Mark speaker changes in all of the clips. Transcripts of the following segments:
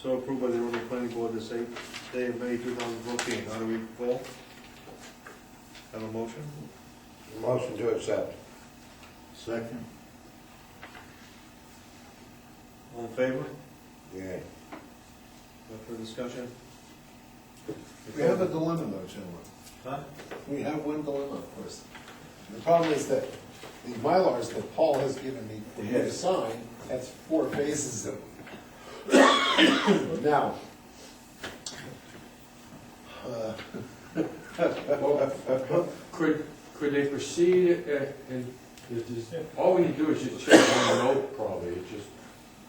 Speaker 1: So approved by the Arundel Planning Board this eighth day of May two thousand fourteen. How do we vote? Have a motion?
Speaker 2: Motion to accept.
Speaker 3: Second.
Speaker 1: All in favor?
Speaker 2: Yeah.
Speaker 1: No further discussion?
Speaker 3: We have a dilemma though, gentlemen.
Speaker 1: Huh?
Speaker 3: We have one dilemma, of course. The problem is that the Mylars that Paul has given me for you to
Speaker 2: Yes.
Speaker 3: sign, that's four phases of. Now. uh,
Speaker 4: Could, could they proceed uh, and, this is- all we need to do is just check one note probably, it's just,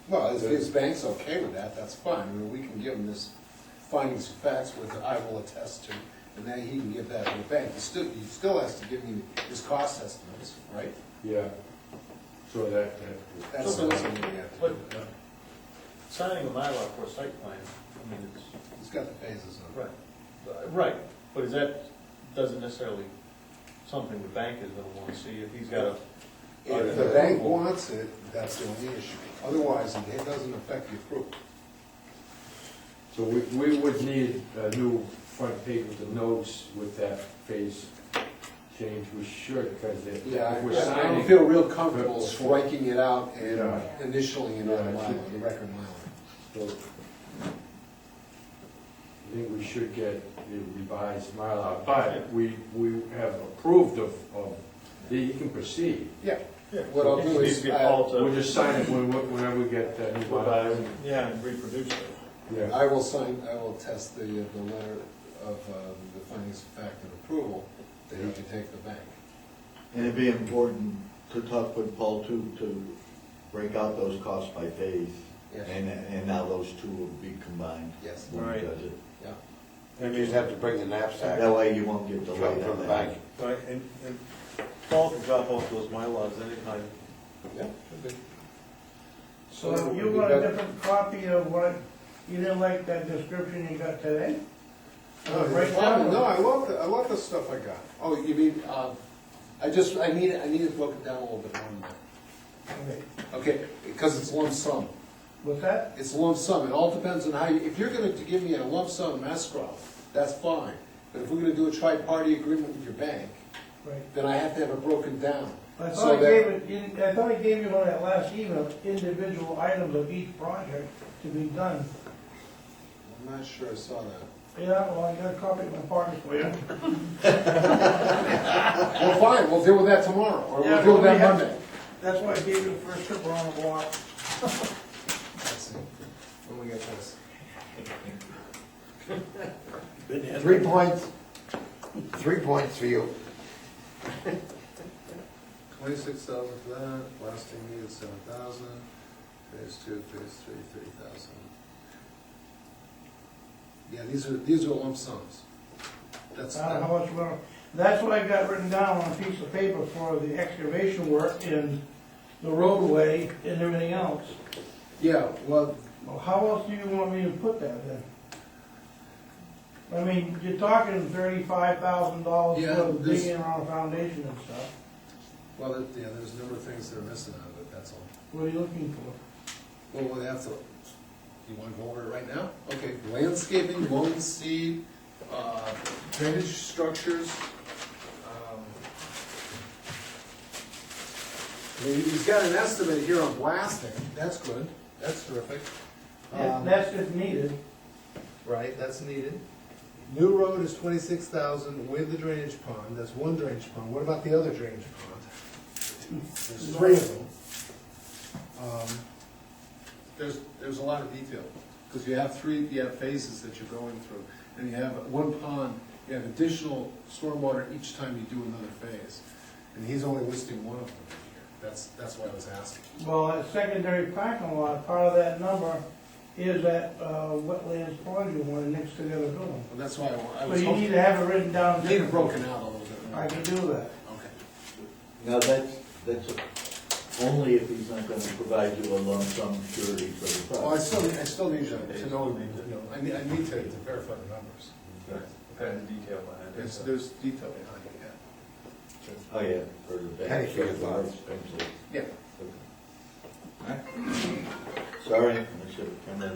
Speaker 3: Well, if his bank's okay with that, that's fine. I mean, we can give him this findings of facts with I will attest to, and then he can give that to the bank. He still, he still has to give me his cost estimates, right?
Speaker 4: yeah. So that, that,
Speaker 3: That's
Speaker 5: So, but-
Speaker 3: something we have to
Speaker 5: But
Speaker 3: do.
Speaker 5: signing a Mylar for a site plan, I mean, it's,
Speaker 3: He's got the phases of it.
Speaker 5: right, Uh, right, but is that, doesn't necessarily, something the bank is gonna wanna see, if he's got a.
Speaker 3: If the bank wants it, that's the only issue. Otherwise, it doesn't affect the approval.
Speaker 4: so we, we would need a new front page with the notes with that phase change, we should, because if
Speaker 3: Yeah,
Speaker 4: if we're
Speaker 3: I- I
Speaker 4: signing.
Speaker 3: don't feel real comfortable striking it out and
Speaker 4: Yeah.
Speaker 3: initially in on
Speaker 4: Yeah,
Speaker 3: the
Speaker 4: I
Speaker 3: mile,
Speaker 4: think-
Speaker 3: the record mile.
Speaker 4: So, I think we should get the revised Mylar, but we, we have approved of, of, that you can proceed.
Speaker 3: Yeah,
Speaker 5: Yeah.
Speaker 3: what I'll
Speaker 5: It
Speaker 3: do
Speaker 5: needs
Speaker 3: is
Speaker 5: to be
Speaker 3: I-
Speaker 5: called to-
Speaker 4: We'll just sign it when- whenever we get that new
Speaker 5: Go by
Speaker 4: Mylar.
Speaker 5: and- Yeah, and reproduce it.
Speaker 4: Yeah,
Speaker 3: I will sign, I will test the, the letter of um, the findings of fact and approval that he can take to the bank.
Speaker 6: And it'd be important to talk with Paul too, to break out those costs by phase.
Speaker 3: Yes.
Speaker 6: And, and now those two will be combined.
Speaker 3: Yes.
Speaker 6: When he
Speaker 5: Right.
Speaker 6: does it.
Speaker 3: Yeah.
Speaker 2: And you just have to bring the knapsack
Speaker 6: That way you won't get
Speaker 2: from
Speaker 6: delayed
Speaker 2: from
Speaker 6: on
Speaker 2: the
Speaker 6: that.
Speaker 2: bank.
Speaker 1: Right, and, and Paul can drop off those MyLars anytime.
Speaker 3: Yeah, should be.
Speaker 7: So you want a different copy of what, you didn't like that description you got today?
Speaker 3: No,
Speaker 7: Right
Speaker 3: it's
Speaker 7: now?
Speaker 3: fine. Oh, No, I love, the I love the stuff I got. Oh, you mean, um, I just, I need, I need to broke it down a little bit more.
Speaker 7: Okay.
Speaker 3: Okay, because it's lump sum.
Speaker 7: What's that?
Speaker 3: It's lump sum, it all depends on how you, if you're gonna give me a lump sum escrow, that's fine. But if we're gonna do a tri-party agreement with your bank,
Speaker 7: Right.
Speaker 3: then I have to have it broken down.
Speaker 7: I
Speaker 3: so
Speaker 7: thought I
Speaker 3: that-
Speaker 7: gave it, you- I thought I gave you on that last email, individual items of each project to be done.
Speaker 3: I'm not sure I saw that.
Speaker 7: Yeah, well, I got a copy of my partner for you.
Speaker 3: Well, fine, we'll deal with that tomorrow, or
Speaker 7: Yeah,
Speaker 3: we'll deal with
Speaker 7: but
Speaker 3: that
Speaker 7: we have-
Speaker 3: Monday.
Speaker 7: That's why I gave you the first trip around the block.
Speaker 3: Let's see. When we get this.
Speaker 2: Three points, three points for you.
Speaker 3: Twenty-six thousand for that, blasting needed seven thousand, phase two, phase three, three thousand. Yeah, these are, these are lump sums. That's,
Speaker 7: I don't
Speaker 2: Uh-huh.
Speaker 7: know how much we're, that's what I got written down on a piece of paper for the excavation work and the roadway and everything else.
Speaker 3: yeah, well,
Speaker 7: Well, how else do you want me to put that in? I mean, you're talking thirty-five thousand dollars
Speaker 3: Yeah,
Speaker 7: for the
Speaker 3: this-
Speaker 7: digging around foundation and stuff.
Speaker 3: well, there- yeah, there's a number of things that are missing out of it, that's all.
Speaker 7: What are you looking for?
Speaker 3: Well, we'll have to, you wanna go over it right now? Okay, landscaping, lawn seed, uh, drainage structures, um. I mean, he's got an estimate here on blasting, that's good, that's terrific. Um,
Speaker 7: That's if needed.
Speaker 3: Right, that's needed. New road is twenty-six thousand with the drainage pond, that's one drainage pond, what about the other drainage pond? There's three of them. Um, There's, there's a lot of detail, because you have three, you have phases that you're going through, and you have one pond, you have additional stormwater each time you do another phase. And he's only listing one of them here, that's, that's why I was asking.
Speaker 7: Well, that secondary parking lot, part of that number is that uh, wetlands corridor one next to the other building.
Speaker 3: Well, that's why I wa- I
Speaker 7: So
Speaker 3: was
Speaker 7: you need
Speaker 3: hoping,
Speaker 7: to have it written down.
Speaker 3: need it broken out a little bit. more.
Speaker 7: I can do that.
Speaker 3: Okay.
Speaker 6: Now, that's, that's only if he's not gonna provide you a lump sum surety for the
Speaker 5: Oh,
Speaker 3: Well, I
Speaker 6: project.
Speaker 3: still, I still need to to know, you know, I need, I need to to verify the numbers.
Speaker 5: Kind of detail behind
Speaker 3: There's, there's detail behind it,
Speaker 6: Oh, yeah, for the bank.
Speaker 2: Any further
Speaker 6: for the
Speaker 2: thoughts?
Speaker 6: expenses.
Speaker 3: yeah. Yeah.
Speaker 6: Sorry, I should have come in.